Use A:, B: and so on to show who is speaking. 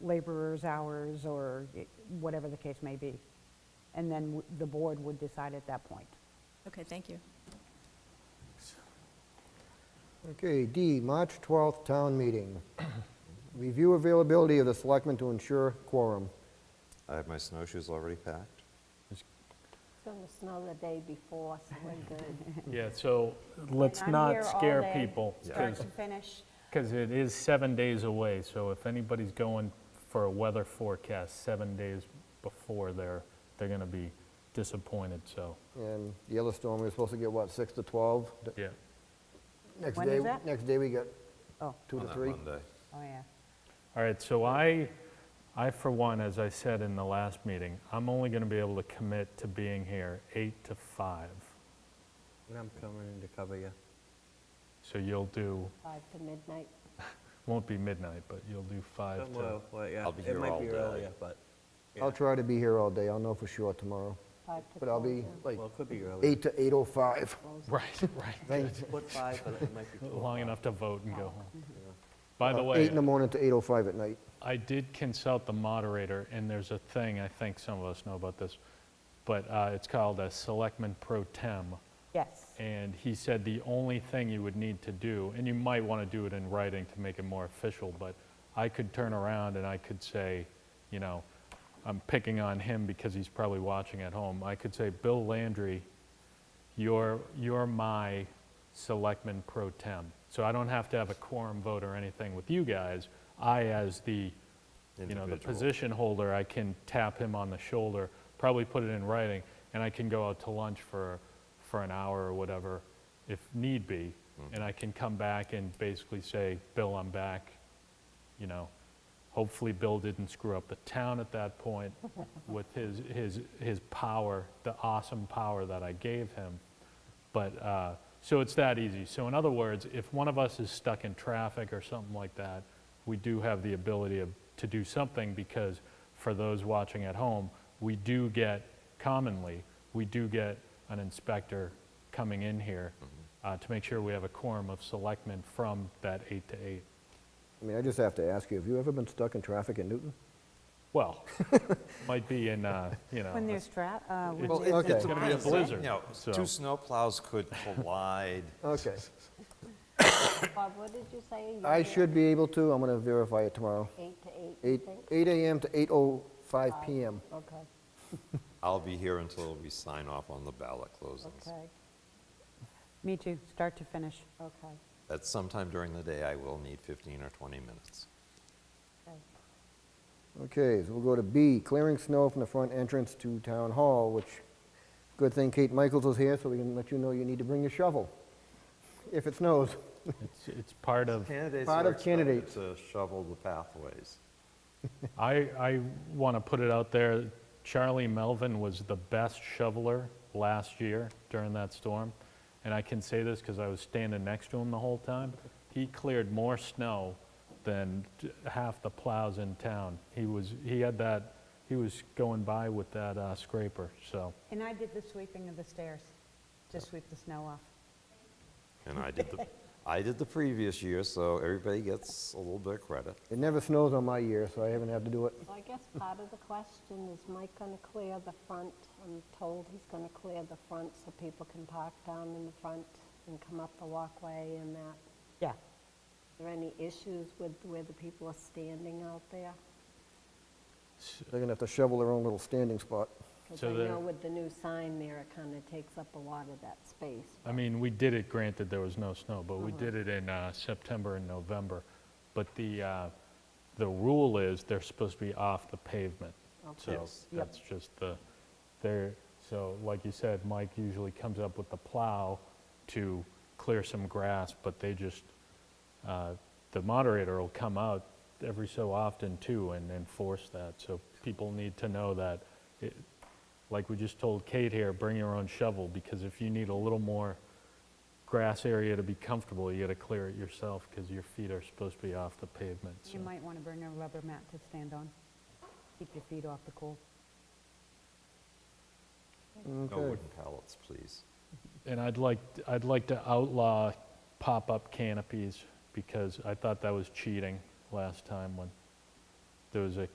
A: laborer's hours or i- whatever the case may be. And then w- the board would decide at that point.
B: Okay, thank you.
C: Okay, D, March 12th Town Meeting. Review availability of the selectmen to ensure quorum.
D: I have my snowshoes already packed.
E: It's going to snow the day before, so we're good.
F: Yeah, so let's
A: I'm here
F: not
A: all
F: scare
A: day,
F: people,
A: Start to finish.
F: because it is seven days away, so if anybody's going for a weather forecast seven days before, they're, they're going to be disappointed, so,
C: And the other storm, we were supposed to get, what, 6 to 12? The
F: yeah.
C: Next
A: When is
C: day,
A: that?
C: next day we got
A: Oh,
C: 2
D: on
C: to
D: that
C: 3.
D: Monday.
A: oh, yeah.
F: All right, so I, I for one, as I said in the last meeting, I'm only going to be able to commit to being here eight to five.
G: And I'm coming in to cover you.
F: So you'll do,
E: Five to midnight.
F: won't be midnight, but you'll do five to,
G: Well, well, yeah,
D: I'll be
G: it
D: here
G: might
D: all
G: be
D: day.
G: earlier, but,
C: I'll try to be here all day, I'll know for sure tomorrow.
E: Five to
C: But I'll
E: 12,
C: be
E: yeah.
C: like
G: well, it could be earlier.
C: 8 to 8:05.
F: right, right,
C: Thanks.
G: Put five, but it might be four.
F: long enough to vote and go home. By the
C: Uh,
F: way,
C: 8 in the morning to 8:05 at night.
F: I did consult the moderator, and there's a thing, I think some of us know about this, but uh, it's called a selectman pro tem.
A: Yes.
F: And he said the only thing you would need to do, and you might want to do it in writing to make it more official, but I could turn around and I could say, you know, I'm picking on him because he's probably watching at home. I could say, Bill Landry, you're, you're my selectman pro tem. So I don't have to have a quorum vote or anything with you guys. I, as the, you know, the
D: Individual.
F: position holder, I can tap him on the shoulder, probably put it in writing, and I can go out to lunch for, for an hour or whatever if need be. And I can come back and basically say, Bill, I'm back, you know, hopefully Bill didn't screw up the town at that point with his, his, his power, the awesome power that I gave him. But, uh, so it's that easy. So in other words, if one of us is stuck in traffic or something like that, we do have the ability of, to do something because for those watching at home, we do get commonly, we do get an inspector coming in here uh, to make sure we have a quorum of selectmen from that eight to eight.
C: I mean, I just have to ask you, have you ever been stuck in traffic in Newton?
F: Well, might be in, uh, you know,
A: When
F: a-
A: there's tra, uh, when
F: Well,
A: there's
C: it's-
A: a
C: it's
F: it's gonna be a
A: blizzard.
F: blizzard.
D: You know,
F: so-
D: two snowplows could collide.
C: Okay.
E: Bob, what did you say? You
C: I
E: were
C: should be able to, I'm going to verify it tomorrow.
E: Eight to eight, you
C: 8
E: think?
C: 8 AM to 8:05 PM.
E: Okay,
D: I'll be here until we sign off on the ballot closings.
E: okay,
A: Me too, start to finish.
E: okay.
D: At some time during the day, I will need 15 or 20 minutes.
C: Okay, so we'll go to B, clearing snow from the front entrance to Town Hall, which, good thing Kate Michaels is here, so we can let you know you need to bring your shovel, if it snows.
F: It's, it's part of,
D: Candidates
C: Part of candidates.
D: To shovel the pathways.
F: I, I want to put it out there, Charlie Melvin was the best shoveler last year during that storm. And I can say this because I was standing next to him the whole time. He cleared more snow than t- half the plows in town. He was, he had that, he was going by with that uh, scraper, so.
A: And I did the sweeping of the stairs to sweep the snow off.
D: And I did the, I did the previous year, so everybody gets a little bit of credit.
C: It never snows on my year, so I haven't had to do it.
E: So I guess part of the question is Mike going to clear the front? I'm told he's going to clear the front so people can park down in the front and come up the walkway and that. Are
A: Yeah.
E: there any issues with where the people are standing out there?
C: They're going to have to shovel their own little standing spot.
E: Because
F: So
E: I
F: the-
E: know with the new sign there, it kind of takes up a lot of that space.
F: I mean, we did it, granted there was no snow, but we did it in uh, September and November. But the, uh, the rule is they're supposed to be off the pavement. So
D: Yes.
A: Yep.
F: that's just the, they're, so like you said, Mike usually comes up with the plow to clear some grass, but they just, uh, the moderator will come out every so often too and enforce that. So people need to know that, it- like we just told Kate here, bring your own shovel because if you need a little more grass area to be comfortable, you gotta clear it yourself because your feet are supposed to be off the pavement.
A: You
F: so.
A: might want to bring a rubber mat to stand on. Keep your feet off the cold.
D: No wooden pallets, please.
F: And I'd like, I'd like to outlaw pop-up canopies because I thought that was cheating last time when there was a